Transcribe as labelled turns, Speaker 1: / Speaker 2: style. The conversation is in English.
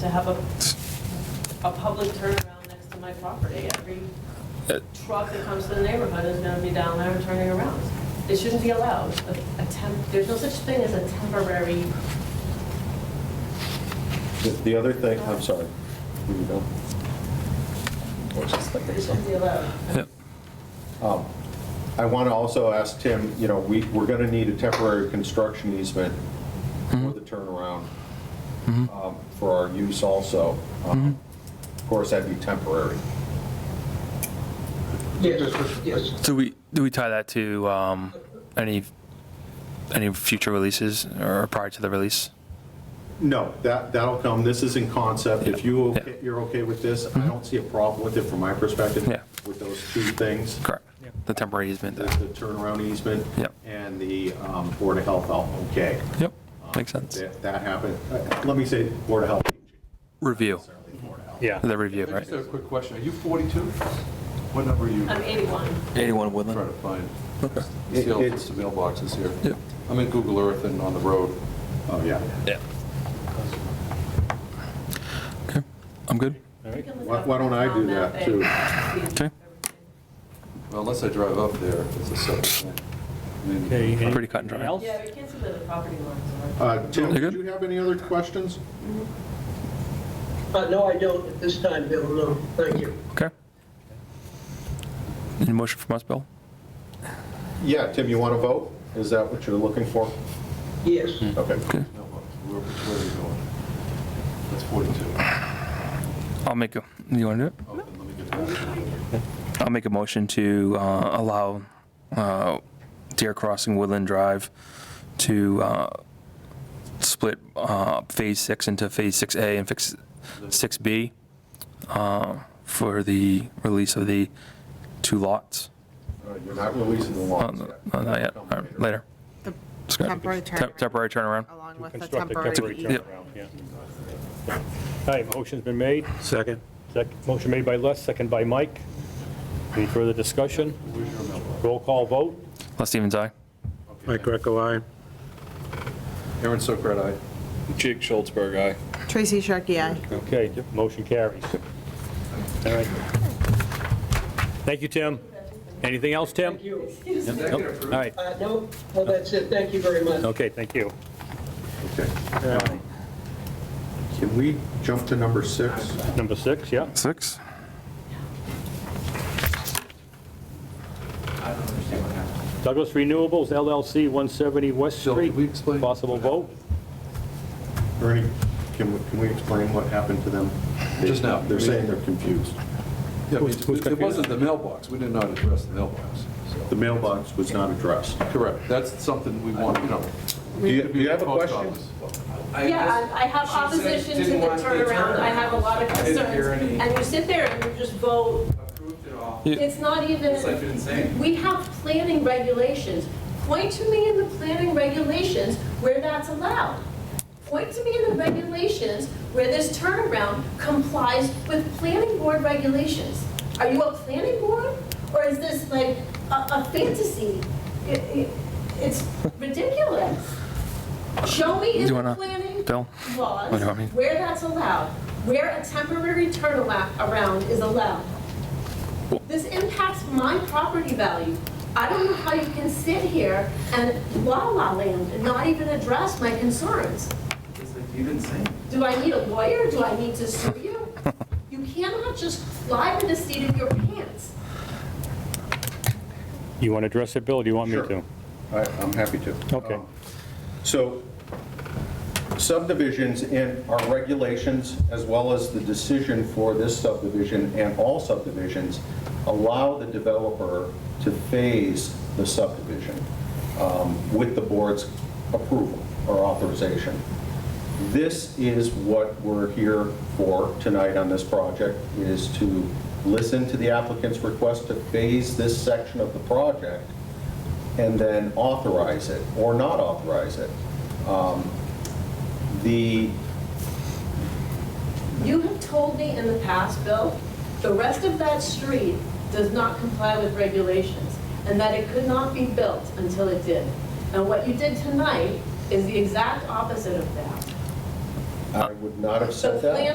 Speaker 1: to have a, a public turnaround next to my property. Every
Speaker 2: Uh,
Speaker 1: truck that comes to the neighborhood is gonna be down there and turning around. It shouldn't be allowed. A a temp, there's no such thing as a temporary,
Speaker 3: The- The other thing, I'm sorry. Here you go.
Speaker 1: it shouldn't be allowed.
Speaker 2: Yep.
Speaker 3: Um, I want to also ask Tim, you know, we, we're going to need a temporary construction easement
Speaker 2: Mm-hmm.
Speaker 3: for the turnaround um, for our use also. Um,
Speaker 2: Mm-hmm.
Speaker 3: Of course, that'd be temporary.
Speaker 4: Yes, yes.
Speaker 2: Do we, do we tie that to um, any, any future releases or prior to the release?
Speaker 3: No, that, that'll come. This is in concept. If you,
Speaker 2: Yeah. Mm-hmm.
Speaker 3: okay- you're okay with this, I don't see a problem with it from my perspective
Speaker 2: Yeah.
Speaker 3: with those two things.
Speaker 2: Correct. The temporary easement
Speaker 3: The
Speaker 2: there.
Speaker 3: the turnaround easement
Speaker 2: Yep.
Speaker 3: and the um, Board of Health, out, okay.
Speaker 2: Yep, makes sense.
Speaker 3: That that happened. Uh, Let me say Board of Health.
Speaker 2: Review,
Speaker 5: Yeah.
Speaker 2: the review,
Speaker 6: I
Speaker 2: right?
Speaker 6: just have a quick question. Are you 42? What number are you
Speaker 1: I'm 81.
Speaker 7: 81
Speaker 6: trying
Speaker 7: Woodland.
Speaker 6: to find?
Speaker 3: It-
Speaker 6: See all
Speaker 3: it's-
Speaker 6: sorts of mailboxes
Speaker 2: Yep.
Speaker 6: here. I'm in Google Earth and on the road.
Speaker 3: Oh, yeah.
Speaker 2: Yeah. Okay, I'm good.
Speaker 1: You can look
Speaker 3: Why-
Speaker 1: up
Speaker 3: why don't I
Speaker 1: town
Speaker 3: do
Speaker 1: map
Speaker 3: that,
Speaker 1: and
Speaker 3: too?
Speaker 1: see
Speaker 2: Okay.
Speaker 1: everything.
Speaker 6: Well, Unless I drive up there, it's a separate thing. I mean,
Speaker 5: Okay, any-
Speaker 2: Pretty cut and dry.
Speaker 5: anything else?
Speaker 1: Yeah, we can't see where the property lines are.
Speaker 3: Uh, Tim,
Speaker 2: You good?
Speaker 3: did you have any other questions?
Speaker 4: Uh, No, I don't at this time, Bill, no, thank you.
Speaker 2: Okay. Any motion from us, Bill?
Speaker 3: Yeah, Tim, you want to vote? Is that what you're looking for?
Speaker 4: Yes,
Speaker 3: Okay.
Speaker 6: mailbox. Where where are you going? That's 42.
Speaker 2: I'll make a, you want to do
Speaker 6: Oh, then let me get that.
Speaker 2: it? I'll make a motion to uh, allow uh, Deer Crossing Woodland Drive to uh, split uh, Phase 6 into Phase 6A and fix 6B uh, for the release of the two lots.
Speaker 3: Uh, You're not releasing the
Speaker 2: Uh,
Speaker 3: lawns yet.
Speaker 2: no, Not yet, All right, later.
Speaker 8: The
Speaker 2: Scott.
Speaker 8: temporary
Speaker 2: Tem-
Speaker 8: turnaround.
Speaker 2: Temporary turnaround.
Speaker 8: Along with the
Speaker 5: Construct a
Speaker 8: temporary.
Speaker 5: temporary
Speaker 2: Yep.
Speaker 5: turnaround, yeah. All right, motion's been made.
Speaker 7: Second.
Speaker 5: Sec- Motion made by Les, second by Mike. Any further discussion? Roll call vote.
Speaker 2: Les Stevens, aye.
Speaker 7: Mike Greco, aye.
Speaker 6: Aaron Sokrat, aye. Jake Schultzberg, aye.
Speaker 8: Tracy Sharkey, aye.
Speaker 5: Okay, motion carries. All right. Thank you, Tim. Anything else, Tim?
Speaker 4: thank you.
Speaker 5: Nope. All right,
Speaker 4: Uh, No, well, that's it, thank you very much.
Speaker 5: okay, thank you.
Speaker 3: Okay. Um, Can we jump to number six?
Speaker 5: Number six, yeah?
Speaker 2: Six.
Speaker 5: Douglas Renewables LLC, 170 West
Speaker 6: Bill,
Speaker 5: Street.
Speaker 6: did we explain-
Speaker 5: Possible vote?
Speaker 3: Ernie, can we, can we explain what happened to them? They-
Speaker 6: Just now.
Speaker 3: They're saying they're confused.
Speaker 6: Yeah, we- It wasn't the mailbox. We did not address the mailbox.
Speaker 3: The mailbox was not addressed.
Speaker 6: Correct. That's something we want, you know.
Speaker 3: Do you, do you have a
Speaker 6: Post
Speaker 3: question?
Speaker 6: office.
Speaker 1: Yeah, I I have opposition to the turnaround, I have a lot of concerns. And you sit there and you just vote, it's not even, we have planning regulations. Point to me in the planning regulations where that's allowed. Point to me in the regulations where this turnaround complies with planning board regulations. Are you a planning board, or is this like a a fantasy? It- it- It's ridiculous. Show me in
Speaker 2: Do you
Speaker 1: the
Speaker 2: wanna-
Speaker 1: planning
Speaker 2: Bill?
Speaker 1: laws
Speaker 2: What do you want me-
Speaker 1: where that's allowed, where a temporary turnaround is allowed. This impacts my property value. I don't know how you can sit here and la-la land and not even address my concerns. Do I need a lawyer? Do I need to sue you? You cannot just fly by the seat of your pants.
Speaker 5: You want to address it, Bill, or do you want me
Speaker 3: Sure.
Speaker 5: to?
Speaker 3: I, I'm happy to.
Speaker 5: Okay.
Speaker 3: So subdivisions and our regulations, as well as the decision for this subdivision and all subdivisions, allow the developer to phase the subdivision um, with the board's approval or authorization. This is what we're here for tonight on this project, is to listen to the applicant's request to phase this section of the project and then authorize it or not authorize it. Um, The,
Speaker 1: You have told me in the past, Bill, the rest of that street does not comply with regulations, and that it could not be built until it did. And what you did tonight is the exact opposite of that.
Speaker 9: I would not have
Speaker 3: So
Speaker 9: said that.
Speaker 3: planning